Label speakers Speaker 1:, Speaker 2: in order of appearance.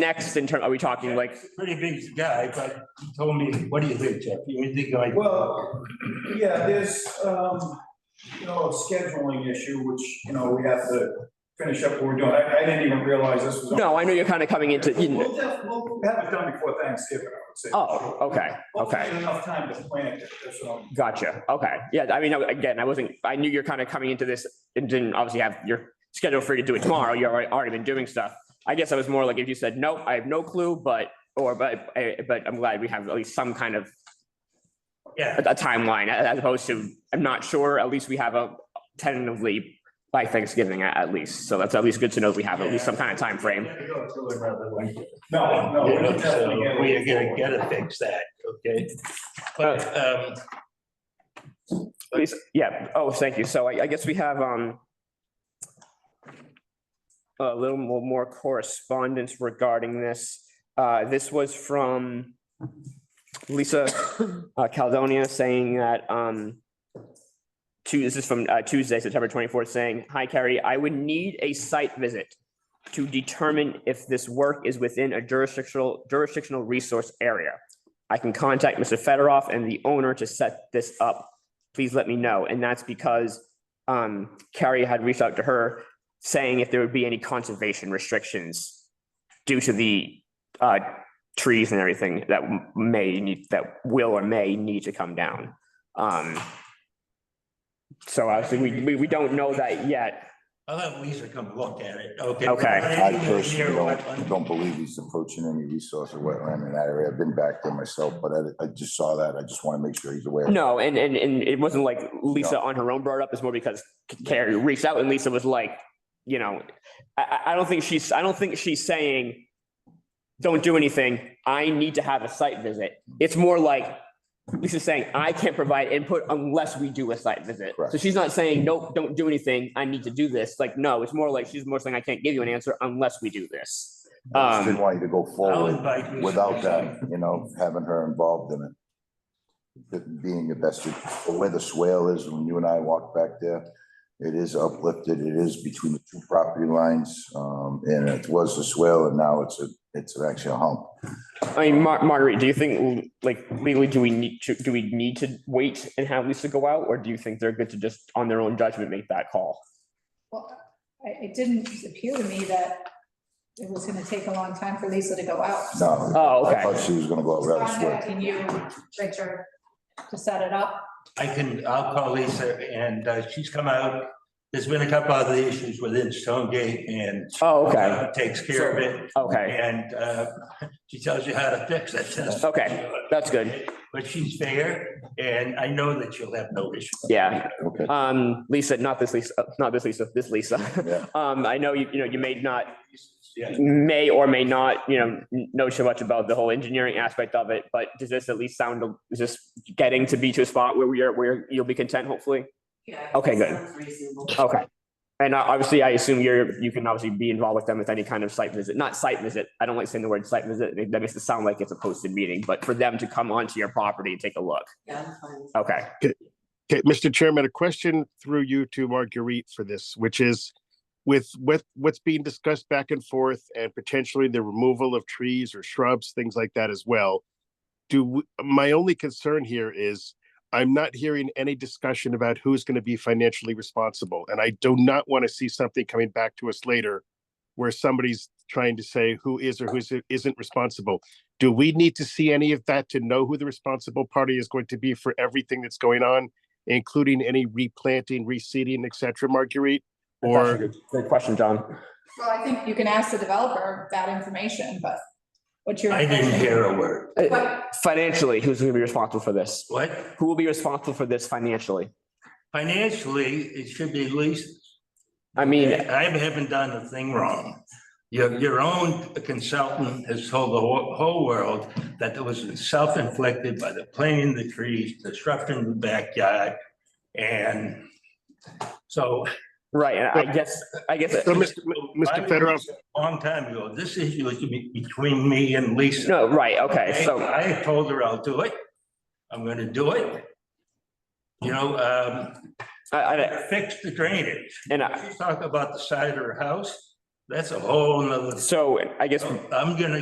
Speaker 1: next in term, are we talking like,
Speaker 2: Pretty big guy, but he told me, what do you think, Jeff? You think like?
Speaker 3: Well, yeah, there's, um, you know, a scheduling issue, which, you know, we have to finish up what we're doing. I, I didn't even realize this was. on.
Speaker 1: no, I know you're kind of coming into, you
Speaker 3: We'll def- we'll have it done before Thanksgiving, I would say.
Speaker 1: oh, okay,
Speaker 3: Hopefully
Speaker 1: okay.
Speaker 3: Enough time to plan it, that's what I'm-
Speaker 1: Gotcha. Okay. Yeah. I mean, I- again, I wasn't, I knew you're kind of coming into this and didn't obviously have your schedule free to do it tomorrow. You've already already been doing stuff. I guess I was more like if you said, nope, I have no clue, but, or, but, eh, but I'm glad we have at least some kind of
Speaker 2: Yeah,
Speaker 1: a a timeline a- as opposed to, I'm not sure, at least we have a tentatively by Thanksgiving a- at least. So that's at least good to know we have at least some kind of time frame.
Speaker 2: Yeah, go to it rather than-
Speaker 3: No, no.
Speaker 2: You
Speaker 3: we
Speaker 2: know,
Speaker 3: can
Speaker 2: so
Speaker 3: definitely get it.
Speaker 2: We're gonna gotta fix that, okay? But,
Speaker 1: Oh.
Speaker 2: um,
Speaker 1: Please, yeah, oh, thank you. So I, I guess we have, um, a little mo- more correspondence regarding this. Uh, this was from Lisa uh, Caldonia saying that, um, Tu- this is from uh, Tuesday, September twenty-fourth, saying, hi Carrie, I would need a site visit to determine if this work is within a jurisdictional, jurisdictional resource area. I can contact Mr. Fedorov and the owner to set this up please let me know. And that's because um, Carrie had reached out to her saying if there would be any conservation restrictions due to the uh, trees and everything that m- may need, that will or may need to come down. Um, so obviously, we, we, we don't know that yet.
Speaker 2: I'll have Lisa come look at it, okay?
Speaker 1: Okay.
Speaker 4: I personally don't, don't believe he's approaching any resource or wetland in that area. I've been back there myself, but I, I just saw that. I just want to make sure he's aware.
Speaker 1: No, and, and, and it wasn't like Lisa on her own brought it up, it's more because Carrie reached out and Lisa was like, you know, I, I, I don't think she's, I don't think she's saying, don't do anything, I need to have a site visit. It's more like, Lisa's saying, I can't provide input unless we do a site visit. So
Speaker 4: Correct.
Speaker 1: she's not saying, nope, don't do anything, I need to do this, like, no, it's more like, she's more saying, I can't give you an answer unless we do this.
Speaker 4: I just didn't
Speaker 1: Um,
Speaker 4: want you to go
Speaker 2: I'll
Speaker 4: forward
Speaker 2: invite Lisa.
Speaker 4: without that, you know, having her involved in it. It Being the best, where the swale is, when you and I walked back there, it is uplifted. It is between the two property lines. Um, and it was a swale and now it's a, it's actually a hump.
Speaker 1: I mean, Mar- Marguerite, do you think, like, legally, do we need to, do we need to wait and have Lisa go out, or do you think they're good to just, on their own judgment, make that call?
Speaker 5: Well, I- it didn't appear to me that it was gonna take a long time for Lisa to go out.
Speaker 4: No,
Speaker 1: Oh,
Speaker 4: I
Speaker 1: okay.
Speaker 4: thought she was gonna go out rather
Speaker 5: Just
Speaker 4: swift.
Speaker 5: Contacting you, Richard, to set it up.
Speaker 2: I can, I'll call Lisa and uh, she's come out. There's been a couple other issues within Stonegate and uh,
Speaker 1: Oh, okay,
Speaker 2: takes care of it.
Speaker 1: okay,
Speaker 2: And uh, she tells you how to fix it.
Speaker 1: Okay. that's good,
Speaker 2: But she's fair and I know that you'll have no issue.
Speaker 1: yeah.
Speaker 4: Okay,
Speaker 1: Um, Lisa, not this Lisa, uh, not this Lisa, this Lisa.
Speaker 4: yeah.
Speaker 1: Um, I know you, you know, you may not,
Speaker 2: Yeah,
Speaker 1: may or may not, you know, n- know so much about the whole engineering aspect of it, but does this at least sound, is this getting to be to a spot where we are, where you'll be content, hopefully?
Speaker 6: Yeah.
Speaker 1: Okay, good.
Speaker 6: sounds Reasonable.
Speaker 1: Okay. And uh, obviously, I assume you're, you can obviously be involved with them with any kind of site visit, not site visit. I don't like saying the word site visit. That makes it sound like it's a posted meeting, but for them to come onto your property and take a look.
Speaker 6: Yeah, I'm fine.
Speaker 1: Okay.
Speaker 7: Okay, Mr. Chairman, a question through you to Marguerite for this, which is with with what's being discussed back and forth and potentially the removal of trees or shrubs, things like that as well. Do, w- my only concern here is I'm not hearing any discussion about who's going to be financially responsible. And I do not want to see something coming back to us later where somebody's trying to say who is or who isn't responsible. Do we need to see any of that to know who the responsible party is going to be for everything that's going on? including any replanting, reseeding, et cetera, Marguerite? Or,
Speaker 1: Great question, John.
Speaker 5: Well, I think you can ask the developer that information, but what's your?
Speaker 2: I didn't hear a word.
Speaker 5: But
Speaker 1: Financially, who's going to be responsible for this?
Speaker 2: What?
Speaker 1: Who will be responsible for this financially?
Speaker 2: Financially, it should be Lisa's.
Speaker 1: I mean,
Speaker 2: I haven't done a thing wrong. Your, your own consultant has told the whole, whole world that it was self-inflicted by the planting the trees, disrupting the backyard. And so.
Speaker 1: right, and I guess, I guess,
Speaker 7: so, Mr. M- Mr. Fedorov,
Speaker 2: Long time ago, this issue was be- between me and Lisa.
Speaker 1: no, right, okay, so,
Speaker 2: I told her I'll do it. I'm gonna do it. You know, um,
Speaker 1: I, I,
Speaker 2: fix the drainage.
Speaker 1: and uh, I,
Speaker 2: She's talking about the side of her house.
Speaker 1: That's a whole nother,
Speaker 2: So I guess
Speaker 1: I'm gonna